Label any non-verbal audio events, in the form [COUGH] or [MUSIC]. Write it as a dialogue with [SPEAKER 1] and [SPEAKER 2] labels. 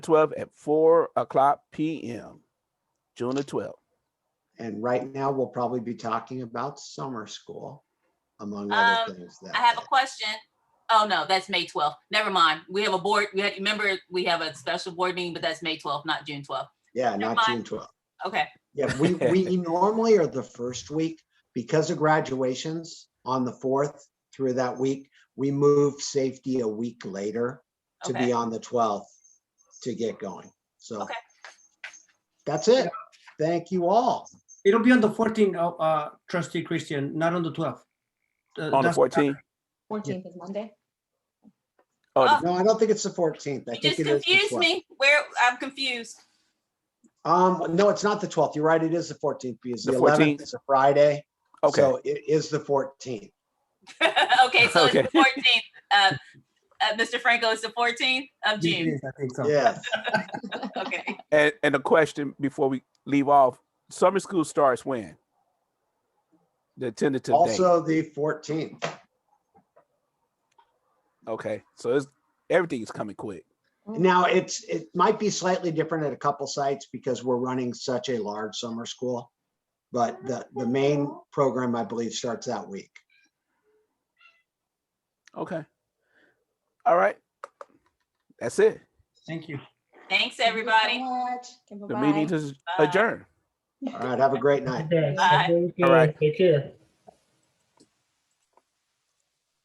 [SPEAKER 1] twelve at four o'clock PM, June the twelfth.
[SPEAKER 2] And right now, we'll probably be talking about summer school, among other
[SPEAKER 3] Um,
[SPEAKER 2] things. that
[SPEAKER 3] I have a
[SPEAKER 2] day.
[SPEAKER 3] question. Oh, no, that's May 12th. Never mind. We have a board, we had, remember, we have a special board meeting, but that's May 12th, not June 12th.
[SPEAKER 2] Yeah, not
[SPEAKER 3] mind.
[SPEAKER 2] June twelfth.
[SPEAKER 3] Okay,
[SPEAKER 2] Yeah, we, we normally are the first week because of graduations on the fourth through that week. We move safety a week later to be
[SPEAKER 3] okay.
[SPEAKER 2] on the twelfth to get going. So
[SPEAKER 3] Okay.
[SPEAKER 2] that's it. Thank you all.
[SPEAKER 4] It'll be on the 14th, uh, uh, trustee Christian, not on the 12th. Uh,
[SPEAKER 1] On the
[SPEAKER 4] that's-
[SPEAKER 1] fourteenth.
[SPEAKER 5] Fourteenth is Monday. Uh,
[SPEAKER 3] Oh,
[SPEAKER 2] No, I don't think it's the fourteenth. I think
[SPEAKER 3] You just
[SPEAKER 2] it is the
[SPEAKER 3] confused
[SPEAKER 2] 12th.
[SPEAKER 3] me. Where, I'm confused. [LAUGHS]
[SPEAKER 2] Um, no, it's not the twelfth. You're right. It is the fourteenth because
[SPEAKER 1] The
[SPEAKER 2] the
[SPEAKER 1] 14th.
[SPEAKER 2] eleventh is a Friday.
[SPEAKER 1] Okay,
[SPEAKER 2] So it is the fourteenth.
[SPEAKER 3] Okay, so it's
[SPEAKER 1] Okay.
[SPEAKER 3] the 14th. Uh, uh, Mr. Franco, it's the 14th of June.
[SPEAKER 4] Yes, I think so.
[SPEAKER 2] Yes.
[SPEAKER 3] Okay.
[SPEAKER 1] and, and a question before we leave off, summer school starts when? The tentative date,
[SPEAKER 2] Also the fourteenth.
[SPEAKER 1] okay, so it's, everything is coming quick.
[SPEAKER 2] Now, it's, it might be slightly different at a couple sites because we're running such a large summer school. But the, the main program, I believe, starts that week.
[SPEAKER 1] Okay. All right. That's it.
[SPEAKER 4] Thank you.
[SPEAKER 3] Thanks,
[SPEAKER 5] Thank you so
[SPEAKER 3] everybody.
[SPEAKER 5] much. Okay,
[SPEAKER 1] The
[SPEAKER 5] bye-bye.
[SPEAKER 1] meeting is
[SPEAKER 3] Bye.
[SPEAKER 1] adjourned.
[SPEAKER 2] All right, have a great night.
[SPEAKER 6] Okay,
[SPEAKER 3] Bye.
[SPEAKER 6] thank you.
[SPEAKER 1] All right.
[SPEAKER 6] Take care.